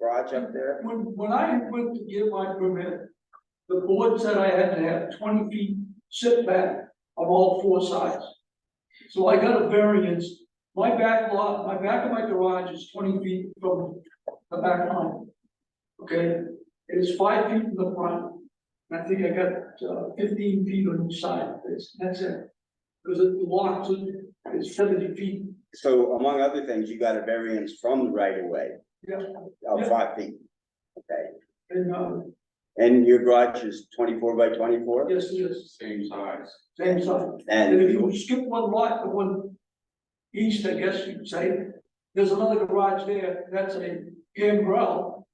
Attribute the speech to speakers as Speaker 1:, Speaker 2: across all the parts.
Speaker 1: garage up there?
Speaker 2: When, when I went to get my permit, the board said I had to have twenty feet setback of all four sides. So I got a variance, my back lot, my back of my garage is twenty feet from the back line. Okay, it is five feet from the front, and I think I got uh, fifteen feet on each side, that's, that's it. Because the lot is seventy feet,
Speaker 1: So among other things, you got a variance from the right of way
Speaker 2: yeah,
Speaker 1: of
Speaker 2: Yeah.
Speaker 1: five feet. Okay,
Speaker 2: and, uh,
Speaker 1: and your garage is twenty-four by twenty-four?
Speaker 2: yes, it is,
Speaker 3: same size.
Speaker 2: same size. And if
Speaker 1: And,
Speaker 2: you skip one lot, the one east, I guess you'd say, there's another garage there, that's a gambrel.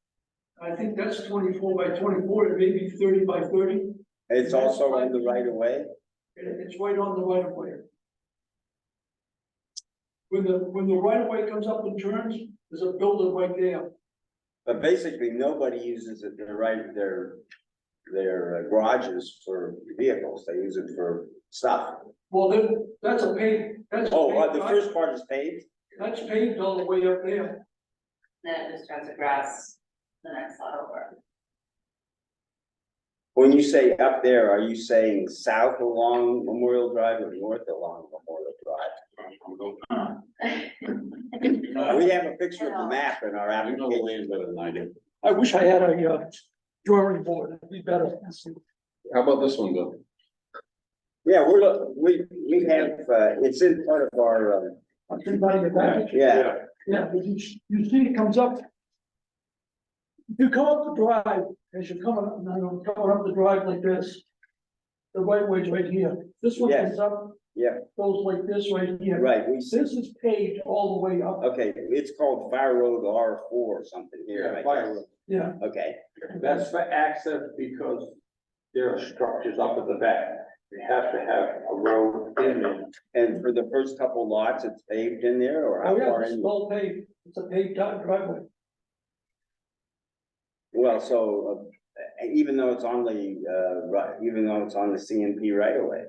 Speaker 2: I think that's twenty-four by twenty-four, it may be thirty by thirty,
Speaker 1: it's also on the right of way?
Speaker 2: and it's right on the right of way. When the, when the right of way comes up and turns, there's a building right there,
Speaker 1: But basically, nobody uses it, their right, their, their uh, garages for vehicles, they use it for stuff.
Speaker 2: well, then, that's a paved, that's. a
Speaker 1: Oh, uh, the
Speaker 2: paved
Speaker 1: first part is paved?
Speaker 2: lot. That's paved all the way up there,
Speaker 4: Then it just turns to grass the next lot over.
Speaker 1: When you say up there, are you saying south along Memorial Drive or north along Memorial Drive?
Speaker 3: I'm going,
Speaker 1: We have a picture of the map in our
Speaker 3: I know the
Speaker 1: application.
Speaker 3: land better than I do.
Speaker 2: I wish I had a, uh, drawing board, it'd be better.
Speaker 3: How about this one, Bill?
Speaker 1: Yeah, we're, look- we, we have, uh, it's in part of our, uh,
Speaker 2: I'm thinking about your back.
Speaker 1: yeah,
Speaker 2: Yeah, but you, you see it comes up. You come up the drive, as you're coming, up, no, no, coming up the drive like this. The right way's right here, this one
Speaker 1: Yes.
Speaker 2: comes up.
Speaker 1: Yeah.
Speaker 2: Goes like this right here.
Speaker 1: right, we said,
Speaker 2: This is paved all the way up,
Speaker 1: okay, it's called Fire Road R four or something here. I
Speaker 5: Yeah, Fire
Speaker 1: guess.
Speaker 5: Road.
Speaker 2: yeah,
Speaker 1: Okay,
Speaker 5: That's for access because there are structures up at the back. You have to have a road in it.
Speaker 1: and for the first couple lots, it's paved in there or
Speaker 2: oh
Speaker 1: how
Speaker 2: yeah,
Speaker 1: far
Speaker 2: it's
Speaker 1: in?
Speaker 2: well paved, it's a paved out driveway.
Speaker 1: Well, so, uh, even though it's on the, uh, right, even though it's on the CMP right away.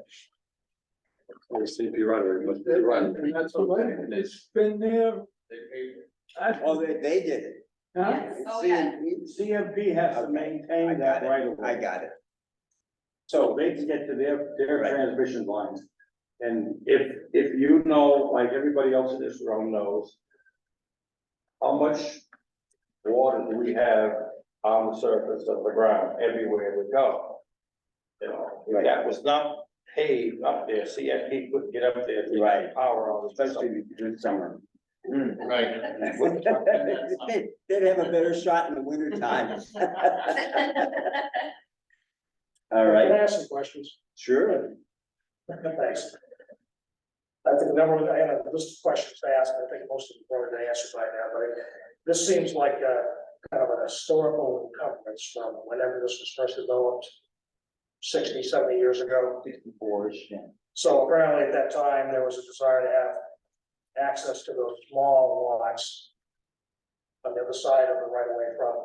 Speaker 5: Or CP right away, but
Speaker 2: That-
Speaker 5: right away.
Speaker 2: and that's what I-
Speaker 5: And it's-
Speaker 2: It's been there.
Speaker 3: They paved it.
Speaker 2: I-
Speaker 1: Oh, they, they did it.
Speaker 2: Huh?
Speaker 4: Yes, oh, yeah.
Speaker 1: CMP
Speaker 5: CMP has to
Speaker 1: Okay. I
Speaker 5: maintain
Speaker 1: got
Speaker 5: that
Speaker 1: it.
Speaker 5: right away.
Speaker 1: I got it.
Speaker 5: So they can get to their, their
Speaker 1: Right.
Speaker 5: transmission lines. And if, if you know, like everybody else in this room knows, how much water do we have on the surface of the ground everywhere we go? You know, if that was not paved up there, CFP couldn't get up there. if they had
Speaker 1: Right.
Speaker 5: Power on the system.
Speaker 1: Especially this summer.
Speaker 3: Right.
Speaker 1: They'd they'd have a better shot in the winter time. All
Speaker 6: Can I
Speaker 1: right,
Speaker 6: ask some questions?
Speaker 1: sure.
Speaker 6: Thanks. I think the number, I had a list of questions to ask, and I think most of them were already answered by now, but this seems like a kind of an historical encumbrance from whenever this was first developed 60, 70 years ago. So apparently at that time, there was a desire to have access to those small lots on the other side of the right of way from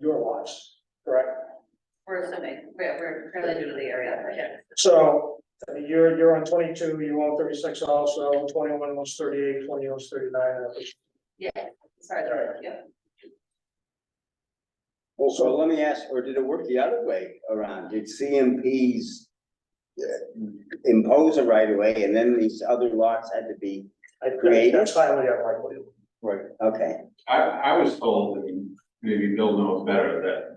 Speaker 6: your lots, correct?
Speaker 4: We're assuming, we're, we're fairly new to the area, but yeah.
Speaker 6: So, I mean, you're, you're on twenty-two, you own thirty-six also, twenty-one was thirty-eight, twenty was thirty-nine, and I think-
Speaker 4: Yeah, sorry,
Speaker 6: Right.
Speaker 4: yeah.
Speaker 1: Well, so let me ask, or did it work the other way around? Did CMPs uh, impose a right of way and then these other lots had to be,
Speaker 6: I think
Speaker 1: Creative.
Speaker 6: that's highly unlikely.
Speaker 1: okay,
Speaker 3: I, I was told, and maybe Bill knows better, that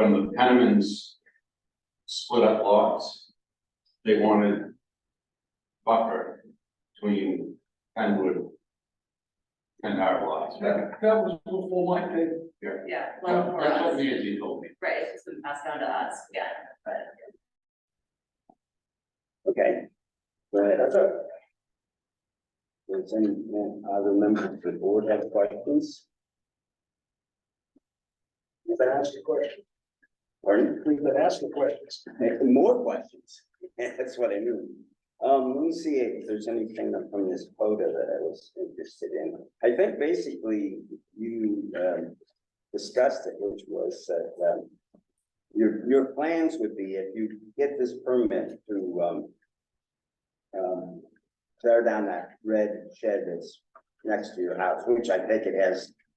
Speaker 3: when the Penniman's split up lots, they wanted buffer between Penwood and our lots. That-
Speaker 2: That, that was before my day.
Speaker 4: Yeah, well, for
Speaker 3: That's what
Speaker 4: us,
Speaker 3: Nancy told me.
Speaker 4: right, it's been passed down to us, yeah, but.
Speaker 1: okay. Go ahead.
Speaker 6: That's it.
Speaker 1: Does any uh, other members of the board have questions?
Speaker 6: You've been asking questions,
Speaker 1: Pardon?
Speaker 6: we've been asking questions.
Speaker 1: More questions. That's what I knew. Um, let me see if there's anything from this quota that I was interested in. I think basically you, um, discussed it, which was that, um, your, your plans would be if you get this permit to, um, um, tear down that red shed that's next to your house, which I think it has